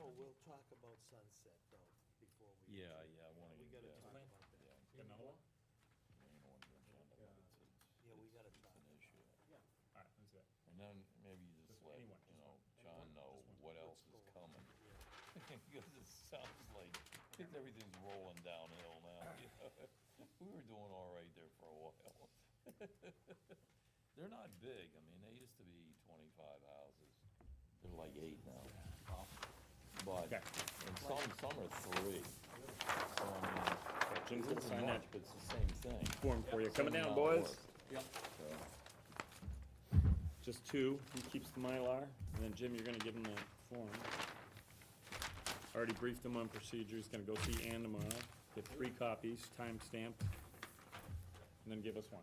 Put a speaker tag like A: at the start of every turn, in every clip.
A: Oh, we'll talk about sunset though, before we.
B: Yeah, yeah, I wanna-
A: We gotta
B: yeah.
A: talk about that.
C: Another one?
B: You know, on your agenda, but it's- it's-
A: Yeah, we gotta talk.
B: It's an issue.
C: All right, let's do that.
B: And then maybe you just
C: Just
B: let, you
C: anyone, just
B: know,
C: one.
B: John
C: Anyone,
B: know
C: just one.
B: what else
A: Go
B: is
A: on.
B: coming.
A: Yeah.
B: Because it sounds like everything's rolling downhill now, you know? We were doing all right there for a while. They're not big, I mean, they used to be twenty-five houses. They're like eight now. But,
C: Okay.
B: and some, some are three. So, I mean,
C: Jim's
B: it
C: gonna
B: isn't
C: sign
B: much,
C: that.
B: But it's the same thing.
C: Form for you, coming
B: Same
C: down,
B: amount of
C: boys.
B: work,
C: Yep.
B: so.
C: Just two, he keeps the Mylar, and then Jim, you're gonna give him the form. Already briefed him on procedure, he's gonna go see Ann tomorrow, get three copies, time stamped, and then give us one.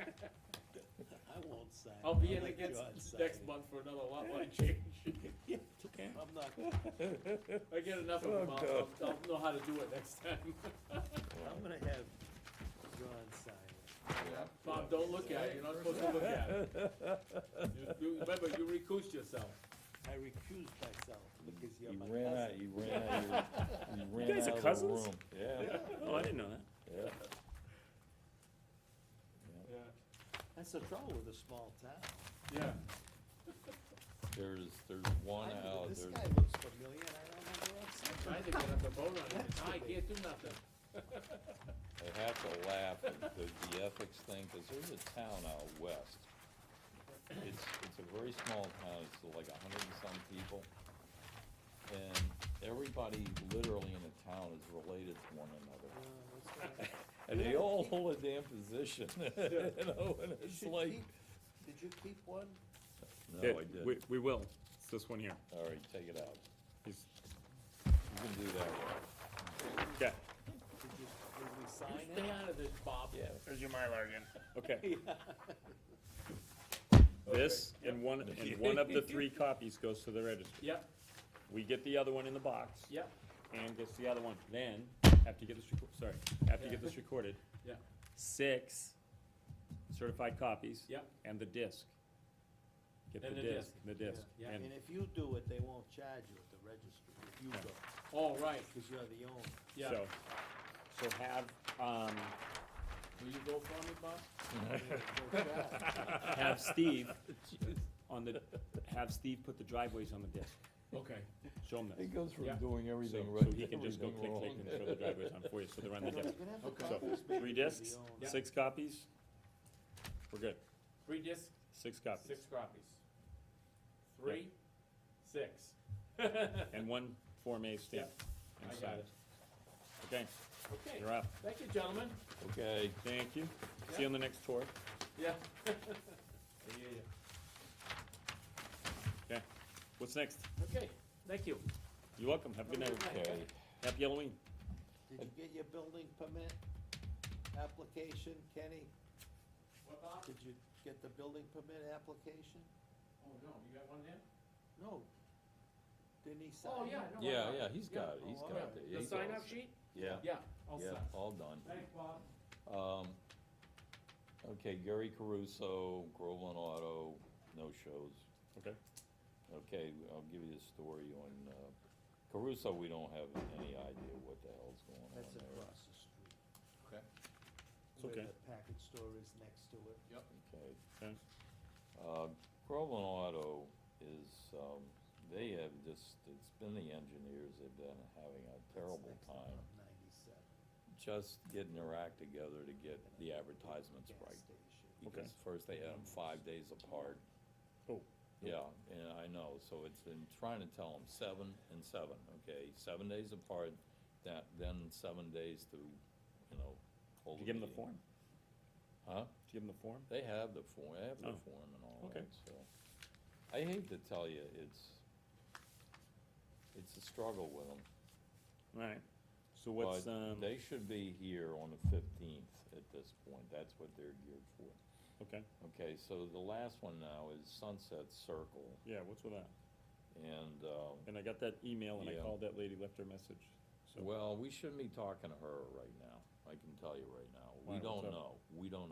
A: I won't sign.
D: I'll be
A: I'll
D: in
A: let
D: against
A: John sign
D: next
A: it.
D: month for another lot line change.
C: Okay.
A: I'm not,
D: I get enough of them, I'll, I'll- I'll know how to do it next time.
A: I'm gonna have John sign it.
D: Bob, don't look at it, you're not supposed to look at it. You- you- Remember, you recused yourself.
A: I recuse myself because you're
B: He
A: my
B: ran out,
A: cousin.
B: he ran out, of- he ran
C: guys are
B: out of the
C: cousins?
B: room. Yeah,
C: Oh, I didn't know that.
B: yeah.
D: Yeah.
A: That's the trouble with a small town.
D: Yeah.
B: There's, there's one
A: I-
B: out,
A: This
B: there's,
A: guy looks familiar, and I don't know where I've seen him.
D: Trying to get up the vote on it, I can't do nothing.
B: I have to laugh at the, the ethics thing, cause there's a town out west. It's, it's a very small town, it's like a hundred and some people. And everybody literally in the town is related to one
A: Uh,
B: another.
A: what's that?
B: And they all hold a damn position, you know, and
A: You
B: it's
A: should
B: like,
A: keep- Did you keep one?
B: no, I
C: We,
B: didn't.
C: we will, it's this one here,
B: All right, take it out.
C: he's,
B: You can do that one.
C: yeah,
A: Did you, did we sign
D: Stay
A: it?
D: out of this, Bob.
B: Yeah.
C: There's your Mylar again. Okay. This, and one, and one of the three copies goes to the registry.
D: Yep,
C: We get the other one in the box.
D: yep,
C: And gets the other one. Then, after you get this, reco- sorry, after you get this recorded,
D: yep,
C: six certified copies.
D: Yep.
C: And the disc. Get the
D: And the
C: disc,
D: disc.
C: the disc.
D: Yeah. Yeah.
A: And
C: And
A: if you do it, they won't charge you at the registry, if you go,
D: all right,
A: because you're the owner.
D: yeah.
C: so, so have, um,
D: Will you go for me, Bob?
C: have Steve on the, have Steve put the driveways on the disc.
D: Okay.
C: Show him this.
B: It goes
D: Yeah.
B: from doing
C: So,
B: everything right.
C: so he can just go click,
B: everything wrong.
C: click and show the driveways on for you, so they're on the disc.
D: Okay.
C: So, three discs,
D: Yeah.
C: six copies, we're good,
D: Three discs,
C: six copies,
D: six copies. Three, six.
C: and one Form A stamp
D: I got
C: inside
D: it.
C: it. Okay,
D: Okay,
C: you're up,
D: thank you, gentlemen.
B: Okay,
C: thank you, see you on the next tour,
D: Yeah. I hear ya.
C: okay, what's next?
D: Okay, thank you.
C: You're welcome, have a good night,
B: okay.
C: happy Halloween,
A: Did you get your building permit application, Kenny?
D: What, Bob?
A: Did you get the building permit application?
D: Oh, no, you got one there?
A: No. Didn't he sign?
D: Oh, yeah, no. I
B: Yeah,
D: got
B: yeah, he's got it, he's
A: Oh,
B: got
D: Yeah.
B: it.
D: The
B: He's
D: sign
B: all
D: up
B: set.
D: sheet?
B: Yeah,
D: Yeah, all
B: yeah,
D: set.
B: all done.
D: Thanks, Bob.
B: Um, okay, Gary Caruso, Groveland Auto, no shows.
C: okay,
B: Okay, I'll give you the story on, uh, Caruso, we don't have any idea what the hell's going on there.
A: That's across the street.
E: Okay,
C: It's
A: Where
C: okay.
A: the package store is next to it.
E: yep.
B: Okay.
C: okay,
B: Uh, Groveland Auto is, um, they have just, it's been the engineers, they've been having a terrible
A: That's next to
B: time
A: Route Ninety-seven.
B: just getting their act together to get the advertisements
A: Gas
B: right.
A: station.
B: Because first they had them five days apart,
C: oh,
B: yeah, and I know, so it's been trying to tell them seven and seven, okay? Seven days apart, that, then seven days to, you know, hold
C: did you give him the
B: meeting.
C: form,
B: Huh?
C: did you give him the form?
B: They have the form, they have the
C: Oh,
B: form and all
C: okay.
B: that, so. I hate to tell you, it's, it's a struggle with them.
C: Alright, so what's,
B: but
C: um,
B: They should be here on the fifteenth at this point, that's what they're geared for.
C: okay,
B: Okay, so the last one now is Sunset Circle,
C: yeah, what's with that?
B: and, uh,
C: And I got that email and I
B: Yeah.
C: called that lady, left her a message, so.
B: well, we shouldn't be talking to her right now, I can tell you right now.
C: Why,
B: We
C: what's
B: don't
C: up?
B: know, we don't